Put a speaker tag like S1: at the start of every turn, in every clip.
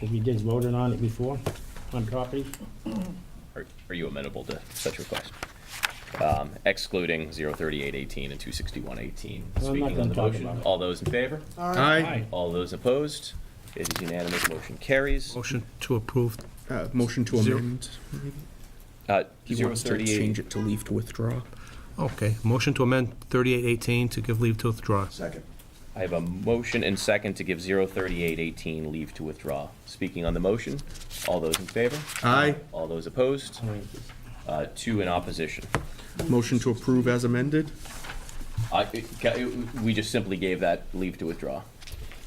S1: Have you guys voted on it before, on property?
S2: Are are you amenable to such request? Um, Excluding 03818 and 26118.
S1: Well, I'm not
S2: Speaking on
S1: gonna
S2: the
S1: talk
S2: motion,
S1: about it.
S2: all those in favor?
S1: Aye.
S2: All those opposed? It is unanimous, motion carries.
S3: Motion to approve.
S4: Uh, motion to
S3: Zero.
S4: amend.
S2: Uh,
S4: He wants to
S2: 038
S4: change it to leave to withdraw.
S3: Okay, motion to amend 3818 to give leave to withdraw.
S5: Second.
S2: I have a motion and second to give 03818 leave to withdraw. Speaking on the motion, all those in favor?
S4: Aye.
S2: All those opposed?
S1: All right.
S2: Uh, Two in opposition.
S4: Motion to approve as amended.
S2: I- it- ca- it- We just simply gave that leave to withdraw.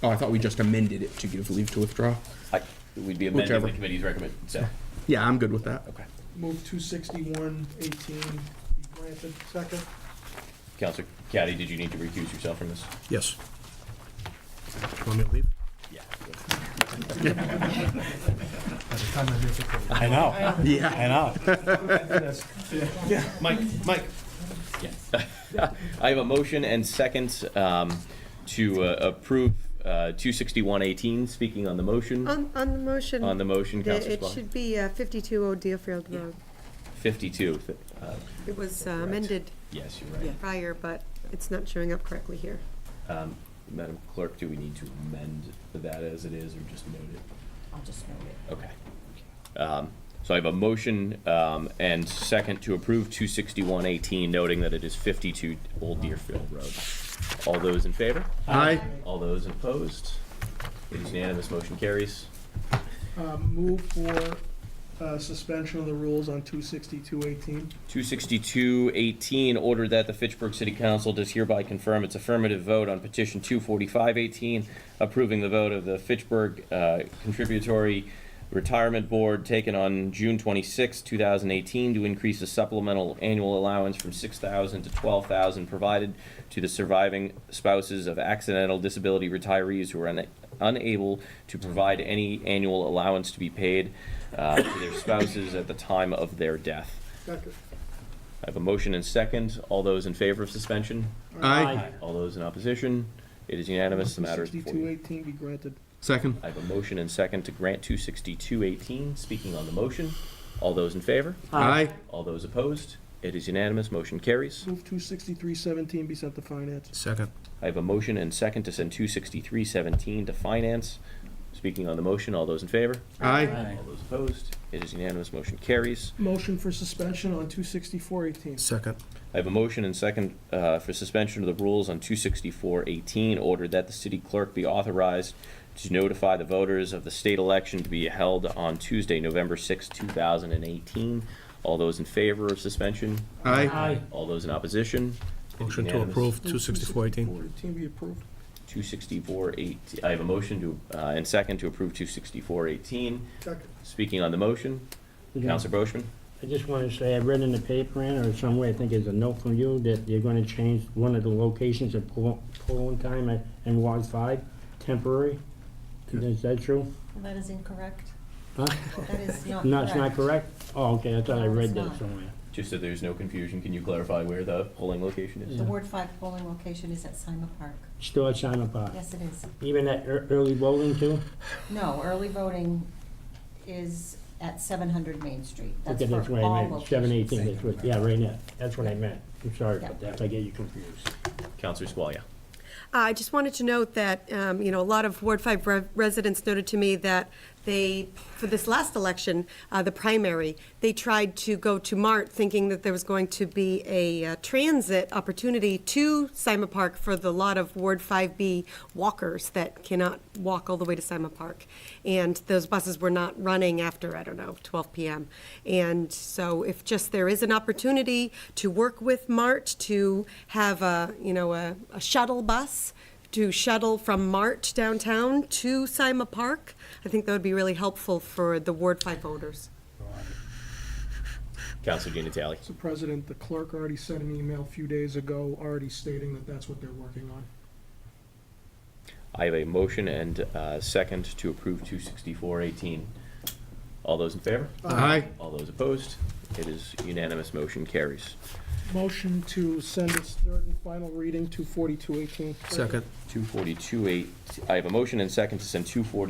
S4: Oh, I thought we just amended it to give leave to withdraw.
S2: I- We'd be amending
S4: Whichever.
S2: the committee's recommend, so,
S4: Yeah, I'm good with that.
S2: okay.
S5: Move two sixty-one eighteen be granted. Second.
S2: Counselor Caddy, did you need to recuse yourself from this?
S3: Yes. Want me to leave?
S2: Yeah.
S6: I know,
S4: Yeah.
S6: I know. Mike, Mike,
S2: I have a motion and second um, to uh, approve uh, 26118. Speaking on the motion,
S7: On, on the motion.
S2: on the motion,
S7: the-
S2: Counselor
S7: It
S2: Spillane.
S7: should be uh, 52 Old Deerfield Road.
S2: 52. Uh,
S7: It was uh, amended
S2: Yes, you're right.
S7: prior, but it's not showing up correctly here.
S2: Madam Clerk, do we need to amend that as it is or just note it?
S8: I'll just note it.
S2: Okay. Um, So I have a motion um, and second to approve 26118, noting that it is 52 Old Deerfield Road. All those in favor?
S4: Aye.
S2: All those opposed? It is unanimous, motion carries.
S5: Um, move for, uh, suspension of the rules on two sixty-two eighteen.
S2: 26218, order that the Fitchburg City Council does hereby confirm its affirmative vote on petition 24518, approving the vote of the Fitchburg uh, Contributory Retirement Board taken on June 26, 2018, to increase the supplemental annual allowance from 6000 to 12000 provided to the surviving spouses of accidental disability retirees who are una- unable to provide any annual allowance to be paid uh, to their spouses at the time of their death.
S5: Second.
S2: I have a motion and second. All those in favor of suspension?
S4: Aye.
S2: All those in opposition? It is unanimous. The matter is before
S5: Sixty-two
S2: you.
S5: eighteen be granted.
S4: Second.
S2: I have a motion and second to grant 26218. Speaking on the motion, all those in favor?
S4: Aye.
S2: All those opposed? It is unanimous. Motion carries.
S5: Move two sixty-three seventeen be sent to finance.
S3: Second.
S2: I have a motion and second to send 26317 to finance. Speaking on the motion, all those in favor?
S4: Aye.
S2: All those opposed? It is unanimous. Motion carries.
S5: Motion for suspension on two sixty-four eighteen.
S3: Second.
S2: I have a motion and second uh, for suspension of the rules on 264-18, ordered that the city clerk be authorized to notify the voters of the state election to be held on Tuesday, November 6, 2018. All those in favor of suspension?
S4: Aye.
S2: All those in opposition? It is
S3: Motion to
S2: unanimous.
S3: approve 26418.
S5: 264.18 be approved.
S2: 264-18, I have a motion to, uh, and second to approve 264-18.
S5: Second.
S2: Speaking on the motion,
S1: Mm-hmm.
S2: Counselor Boishman?
S1: I just wanted to say, I read in the paper, Ann, or somewhere, I think it's a note from you, that you're gonna change one of the locations of poll- polling time at- in Ward Five, temporary. Is that true?
S8: Well, that is incorrect.
S1: Huh?
S8: That is not correct.
S1: No, it's not correct? Oh, okay, I thought I
S8: No,
S1: read
S8: it's
S1: that
S8: not.
S1: somewhere.
S2: Just so there's no confusion, can you clarify where the polling location is?
S8: The Ward Five polling location is at Sima Park.
S1: Still at Simon Park?
S8: Yes, it is.
S1: Even at ear- early voting too?
S8: No, early voting is at seven hundred Main Street. That's
S1: Okay, that's
S8: for
S1: what I
S8: all
S1: meant, seven eighteen,
S8: locations.
S1: that's what, yeah, right now, that's what I meant. I'm sorry
S8: Yeah.
S1: about that, if I get you confused.
S2: Counselor Squalia?
S7: Uh, I just wanted to note that, um, you know, a lot of Ward 5 re- residents noted to me that they, for this last election, uh, the primary, they tried to go to Mart thinking that there was going to be a uh, transit opportunity to Sima Park for the lot of Ward 5B walkers that cannot walk all the way to Sima Park. And those buses were not running after, I don't know, 12 PM. And so if just there is an opportunity to work with Mart to have a, you know, a a shuttle bus to shuttle from Mart downtown to Sima Park, I think that would be really helpful for the Ward 5 voters.
S2: Counselor Dinatale?
S5: Mr. President, the clerk already sent an email a few days ago already stating that that's what they're working on.
S2: I have a motion and uh second to approve 264-18. All those in favor?
S4: Aye.
S2: All those opposed? It is unanimous, motion carries.
S5: Motion to send its third and final reading to 4218.
S3: Second.
S2: 242-8, I have a motion and second to send 240